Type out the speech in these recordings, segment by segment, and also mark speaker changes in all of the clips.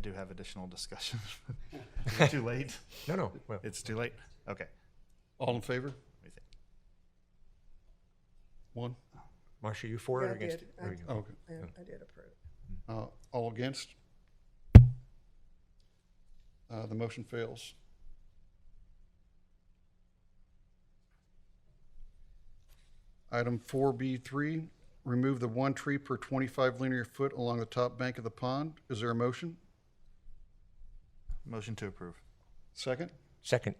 Speaker 1: do have additional discussion. Is it too late?
Speaker 2: No, no, well,
Speaker 1: It's too late? Okay.
Speaker 3: All in favor?
Speaker 1: Let me think.
Speaker 3: One? Oh,
Speaker 2: Marcia, you for
Speaker 4: Yeah,
Speaker 2: or
Speaker 4: I
Speaker 2: against
Speaker 4: did.
Speaker 2: it? There
Speaker 4: I-
Speaker 2: you go.
Speaker 3: Okay.
Speaker 4: Yeah, I did approve.
Speaker 3: Uh, All against? Uh, The motion fails. Item 4B3, remove the one tree per 25 linear foot along the top bank of the pond. Is there a motion?
Speaker 1: Motion to approve.
Speaker 3: Second?
Speaker 2: Second,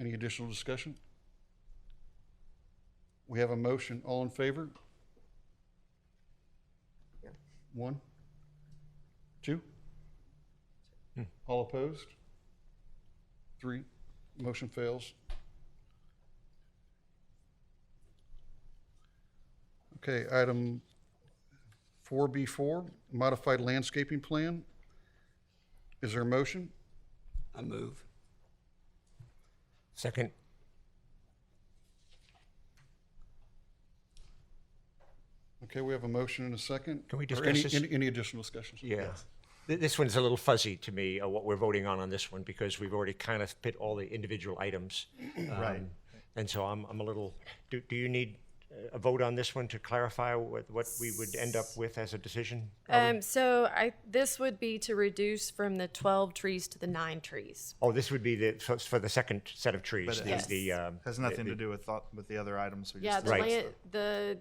Speaker 3: Any additional discussion? We have a motion. All in favor?
Speaker 4: Yeah.
Speaker 3: One? Two? All opposed? Three? Motion fails. Okay, item 4B4, modified landscaping plan. Is there a motion?
Speaker 5: I move.
Speaker 2: second,
Speaker 3: Okay, we have a motion and a second.
Speaker 2: Can we
Speaker 3: Or
Speaker 2: discuss
Speaker 3: any-
Speaker 2: this?
Speaker 3: Any, any additional discussions?
Speaker 2: yeah. Th- This one's a little fuzzy to me, uh, what we're voting on on this one, because we've already kind of put all the individual items.
Speaker 1: Right.
Speaker 2: um, And so I'm, I'm a little, do, do you need uh, a vote on this one to clarify what, what we would end up with as a decision?
Speaker 6: Um, so I, this would be to reduce from the twelve trees to the nine trees.
Speaker 2: Oh, this would be the, so it's for the second set of trees,
Speaker 1: it
Speaker 2: the,
Speaker 6: has-
Speaker 2: the, um,
Speaker 1: Has nothing to do with thought, with the other items we
Speaker 6: Yeah,
Speaker 1: just
Speaker 6: the
Speaker 2: Right.
Speaker 1: discussed.
Speaker 6: land, the,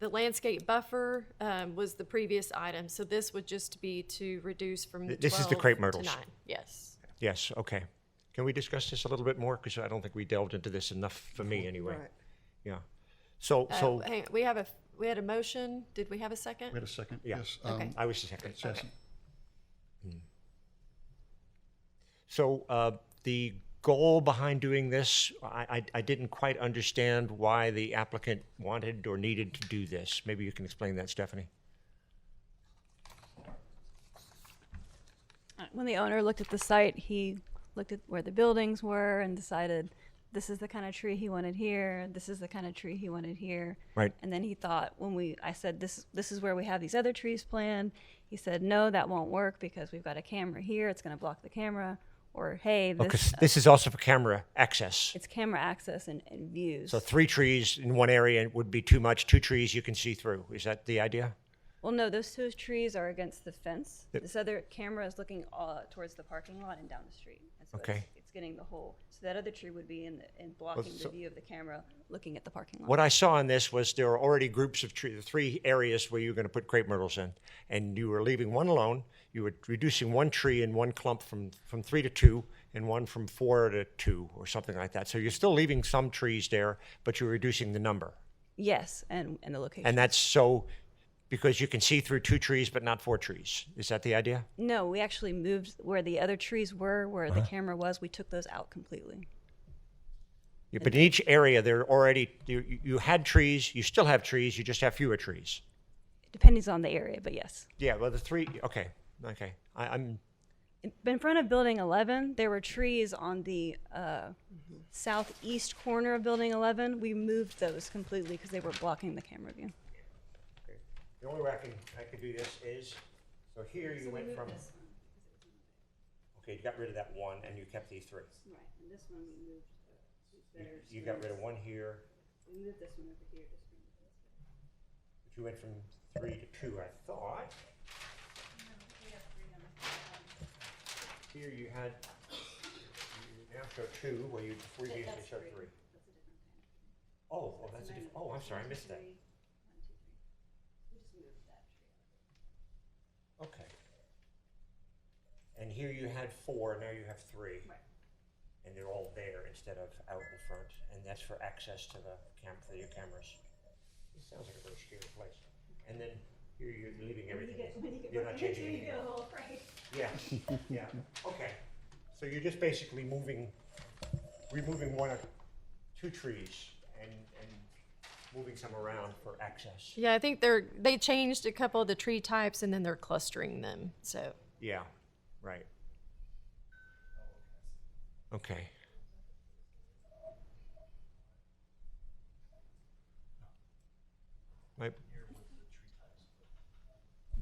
Speaker 6: the landscape buffer, um, was the previous item, so this would just be to reduce from the
Speaker 2: Th- this is the
Speaker 6: twelve
Speaker 2: crepe
Speaker 6: to
Speaker 2: myrtles.
Speaker 6: nine. Yes.
Speaker 2: yes, okay. Can we discuss this a little bit more? Because I don't think we delved into this enough for me, anyway.
Speaker 4: Right.
Speaker 2: Yeah. So,
Speaker 6: Uh,
Speaker 2: so,
Speaker 6: hang- we have a, we had a motion, did we have a second?
Speaker 3: We had a second?
Speaker 2: Yeah.
Speaker 3: Yes.
Speaker 6: Okay.
Speaker 3: um,
Speaker 2: I was the second.
Speaker 3: Jesse.
Speaker 2: Hmm. So uh, the goal behind doing this, I, I, I didn't quite understand why the applicant wanted or needed to do this. Maybe you can explain that, Stephanie.
Speaker 7: When the owner looked at the site, he looked at where the buildings were and decided this is the kind of tree he wanted here, this is the kind of tree he wanted here.
Speaker 2: Right.
Speaker 7: And then he thought when we I said this this is where we have these other trees planned, he said no, that won't work because we've got a camera here, it's going to block the camera or hey,
Speaker 2: Because
Speaker 7: this
Speaker 2: this is also for camera access.
Speaker 7: it's camera access and, and views.
Speaker 2: So three trees in one area would be too much. Two trees you can see through. Is that the idea?
Speaker 7: well, no, those two trees are against the fence.
Speaker 2: Yep.
Speaker 7: This other camera is looking uh, towards the parking lot and down the street. And so
Speaker 2: Okay.
Speaker 7: It's, it's getting the whole. So that other tree would be in, the, in blocking
Speaker 2: so-
Speaker 7: the view of the camera looking at the parking lot.
Speaker 2: What I saw in this was there were already groups of trees, three areas where you were going to put crepe myrtles in, and you were leaving one alone. You were reducing one tree in one clump from, from three to two, and one from four to two, or something like that. So you're still leaving some trees there, but you're reducing the number.
Speaker 7: yes, and, and the location.
Speaker 2: And that's so because you can see through two trees, but not four trees. Is that the idea?
Speaker 7: no, we actually moved where the other trees were, where the
Speaker 2: Uh-huh.
Speaker 7: camera was. We took those out completely.
Speaker 2: Yeah, But in each area, there are already you, you- you had trees. You still have trees. You just have fewer trees.
Speaker 7: Depending on the area, but yes.
Speaker 2: Yeah. Well, the three. Okay. Okay. I, I'm
Speaker 7: In- In front of Building 11, there were trees on the uh,
Speaker 2: Mm-hmm.
Speaker 7: southeast corner of Building 11. We moved those completely because they were blocking the camera view.
Speaker 2: The only way I can, I could do this is, so here you went from. Okay, you got rid of that one and you kept the three.
Speaker 7: Right, and this one we moved. uh,
Speaker 2: You- You got rid of one here,
Speaker 7: We moved this one over here.
Speaker 2: but you went from three to two, I thought. Here you had, you now show two, where you, before you usually show three. Oh, oh, that's a different, oh, I'm sorry, I missed that. Okay. And here you had four, now you have three. And they're all there instead of out in front, and that's for access to the cam, for your cameras. It sounds like a very scary place. And then here you're leaving everything. You're not changing anything. Yeah, yeah, okay. So you're just basically moving, removing one or two trees and, and moving some around for access.
Speaker 6: Yeah, I think they're, they changed a couple of the tree types and then they're clustering them, so.
Speaker 2: Yeah, right. Okay. My